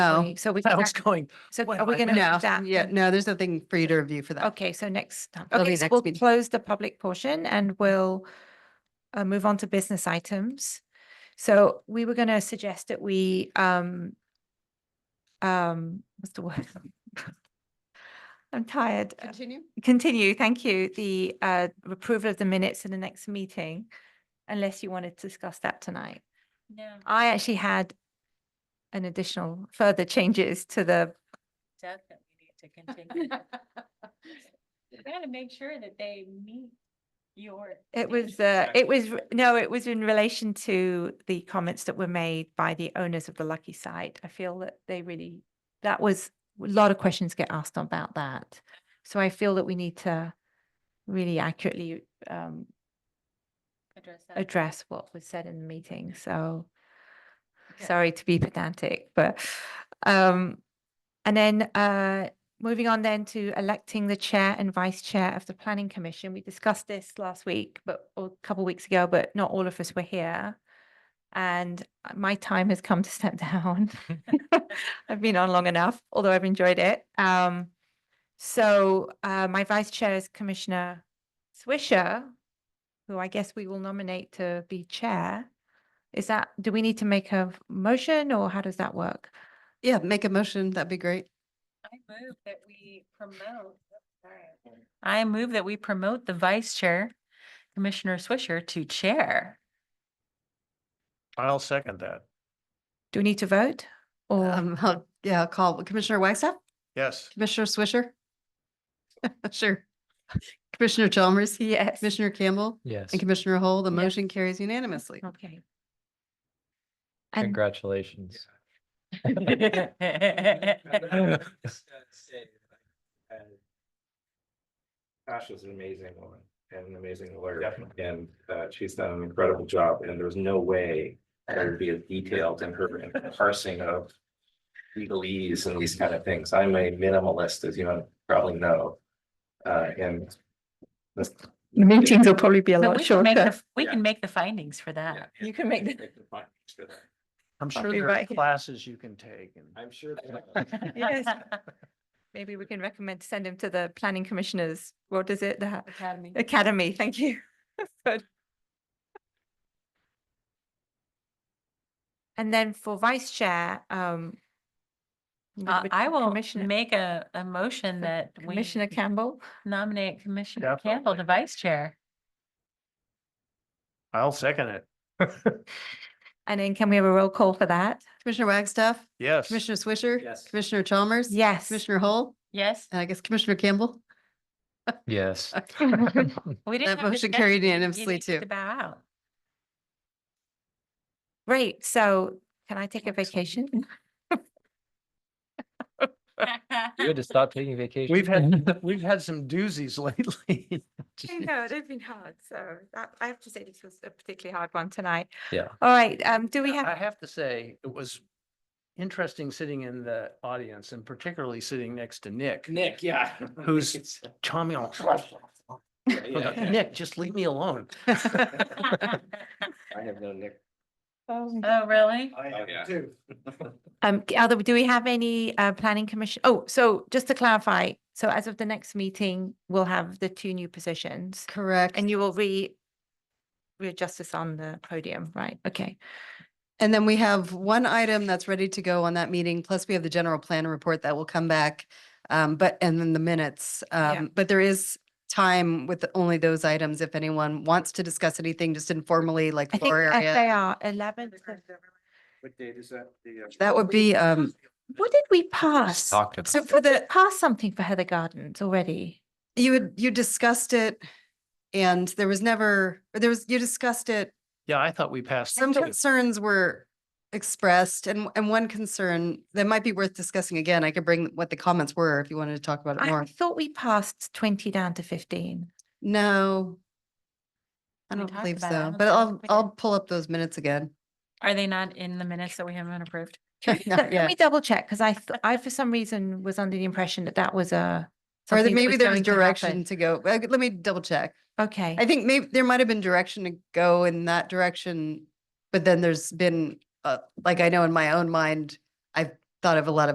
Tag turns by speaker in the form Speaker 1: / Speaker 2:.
Speaker 1: No.
Speaker 2: So we,
Speaker 3: I
Speaker 2: can
Speaker 3: was
Speaker 2: act-
Speaker 3: going,
Speaker 2: so
Speaker 3: wait,
Speaker 2: are we
Speaker 3: I-
Speaker 2: going to
Speaker 1: No,
Speaker 2: move that?
Speaker 1: yeah, no, there's nothing for you to review for that.
Speaker 2: Okay, so next, time-
Speaker 1: That'll be
Speaker 2: okay, so
Speaker 1: next
Speaker 2: we'll
Speaker 1: meeting.
Speaker 2: close the public portion and we'll uh, move on to business items. So we were going to suggest that we, um, um, what's the word? I'm tired. Uh,
Speaker 1: Continue.
Speaker 2: Continue, thank you, the, uh, approval of the minutes in the next meeting, unless you wanted to discuss that tonight.
Speaker 4: No,
Speaker 2: I actually had an additional further changes to the,
Speaker 4: definitely need to continue. We gotta make sure that they meet your.
Speaker 2: it was, uh, it was, re- no, it was in relation to the comments that were made by the owners of the Lucky Site. I feel that they really, that was, a lot of questions get asked about that. So I feel that we need to really accurately, um,
Speaker 4: Address that.
Speaker 2: address what was said in the meeting, so
Speaker 4: Okay.
Speaker 2: sorry to be pedantic, but um and then uh moving on then to electing the chair and vice chair of the planning commission. We discussed this last week, but or a couple weeks ago, but not all of us were here. And uh, my time has come to step down. I've been on long enough, although I've enjoyed it. Um so uh my vice chair is Commissioner Swisher, who I guess we will nominate to be chair. Is that, do we need to make a motion or how does that work?
Speaker 1: Yeah, make a motion. That'd be great.
Speaker 4: I move that we promote. I move that we promote the vice chair, Commissioner Swisher, to chair.
Speaker 3: I'll second that.
Speaker 2: Do we need to vote? Or,
Speaker 1: Um, I'll- yeah, I'll call Commissioner Wagstaff,
Speaker 3: Yes.
Speaker 1: Commissioner Swisher. Sure. Commissioner Chalmers,
Speaker 2: yes,
Speaker 1: Commissioner Campbell
Speaker 5: Yes,
Speaker 1: and Commissioner Hall. The
Speaker 2: Yes.
Speaker 1: motion carries unanimously.
Speaker 2: okay. And
Speaker 5: congratulations.
Speaker 6: Ash is an amazing woman and an amazing lawyer, and uh, she's done an incredible job, and there's no way that would be as detailed in her parsing of legalese and these kind of things. I'm a minimalist, as you probably know. Uh, and this-
Speaker 2: the meetings will probably be a
Speaker 4: But
Speaker 2: lot
Speaker 4: we can make
Speaker 2: shorter.
Speaker 4: the, we
Speaker 6: Yeah.
Speaker 4: can make the findings for
Speaker 6: yeah,
Speaker 4: that.
Speaker 2: Uh, You can make the-
Speaker 3: I'm sure
Speaker 2: be
Speaker 3: there are
Speaker 2: right.
Speaker 3: classes you can take and.
Speaker 6: I'm sure.
Speaker 2: Yes. Maybe we can recommend, send him to the planning commissioners. What is it? The ha-
Speaker 1: Academy.
Speaker 2: Uh, academy, thank you. Good. And then for vice chair, um. we
Speaker 4: Uh,
Speaker 2: would-
Speaker 4: I will
Speaker 2: Commissioner-
Speaker 4: make a, a motion that we
Speaker 2: Commissioner Campbell?
Speaker 4: nominate Commissioner Campbell to
Speaker 3: Definitely.
Speaker 4: vice chair.
Speaker 3: I'll second it.
Speaker 2: And then can we have a roll call for that?
Speaker 1: Commissioner Wagstaff,
Speaker 3: Yes.
Speaker 1: Commissioner Swisher.
Speaker 6: Yes.
Speaker 1: Commissioner Chalmers.
Speaker 2: Yes.
Speaker 1: Commissioner Hall,
Speaker 4: Yes,
Speaker 1: and I guess Commissioner Campbell.
Speaker 5: Yes.
Speaker 4: we didn't.
Speaker 1: That
Speaker 4: have
Speaker 1: motion
Speaker 4: discussion.
Speaker 1: carried
Speaker 4: You
Speaker 1: unanimously
Speaker 4: need to
Speaker 1: too.
Speaker 4: Bow out.
Speaker 2: Great, so can I take a vacation?
Speaker 5: You had to stop taking vacation.
Speaker 3: We've had, we've had some doozies lately.
Speaker 2: I know, they've been hard, so that- I have to say this was a particularly hard one tonight.
Speaker 5: Yeah.
Speaker 2: All right, um, do we
Speaker 3: I
Speaker 2: have,
Speaker 3: have to say, it was interesting sitting in the audience and particularly sitting next to Nick.
Speaker 6: Nick, yeah.
Speaker 3: Who's- Tommy, on-
Speaker 2: Oh,
Speaker 6: Yeah, yeah.
Speaker 3: Nick, just leave me alone.
Speaker 6: I have no Nick.
Speaker 4: Oh, really?
Speaker 3: I
Speaker 6: have yeah.
Speaker 3: too.
Speaker 2: um, c- other, do we have any, uh, planning commission? Oh, so just to clarify, so as of the next meeting, we'll have the two new positions
Speaker 1: Correct.
Speaker 2: and you will re, readjust this on the podium, right? Okay.
Speaker 1: And then we have one item that's ready to go on that meeting, plus we have the general plan report that will come back. Um, but, and then the minutes,
Speaker 2: Yeah.
Speaker 1: um, but there is time with only those items. If anyone wants to discuss anything, just informally, like
Speaker 2: I think
Speaker 1: floor
Speaker 2: if
Speaker 1: area.
Speaker 2: they are eleventh.
Speaker 6: What date is that? uh,
Speaker 1: That would be, um,
Speaker 2: What did we pass?
Speaker 5: Talked about.
Speaker 2: So for the, pass something for Heather Gardens already.
Speaker 1: you would, you discussed it and there was never, there was, you discussed it.
Speaker 3: Yeah, I thought we passed.
Speaker 1: Some
Speaker 3: two.
Speaker 1: concerns were expressed and, and one concern that might be worth discussing again. I could bring what the comments were if you wanted to talk about it
Speaker 2: I
Speaker 1: more.
Speaker 2: thought we passed twenty down to fifteen.
Speaker 1: No. I
Speaker 4: We
Speaker 1: don't
Speaker 4: talked
Speaker 1: believe
Speaker 4: about it. I
Speaker 1: so,
Speaker 4: don't
Speaker 1: but
Speaker 4: think
Speaker 1: I'll,
Speaker 4: we did.
Speaker 1: I'll pull up those minutes again.
Speaker 4: Are they not in the minutes that we haven't approved?
Speaker 1: Not
Speaker 2: Let
Speaker 1: yet.
Speaker 2: me double check, because I, th- I for some reason was under the impression that that was a.
Speaker 1: Or there-
Speaker 2: something that
Speaker 1: maybe
Speaker 2: was
Speaker 1: there's
Speaker 2: going to
Speaker 1: direction
Speaker 2: happen.
Speaker 1: to go. Uh, Let me double check.
Speaker 2: Okay,
Speaker 1: I think maybe there might have been direction to go in that direction. But then there's been, uh, like I know in my own mind, I've thought of a lot of.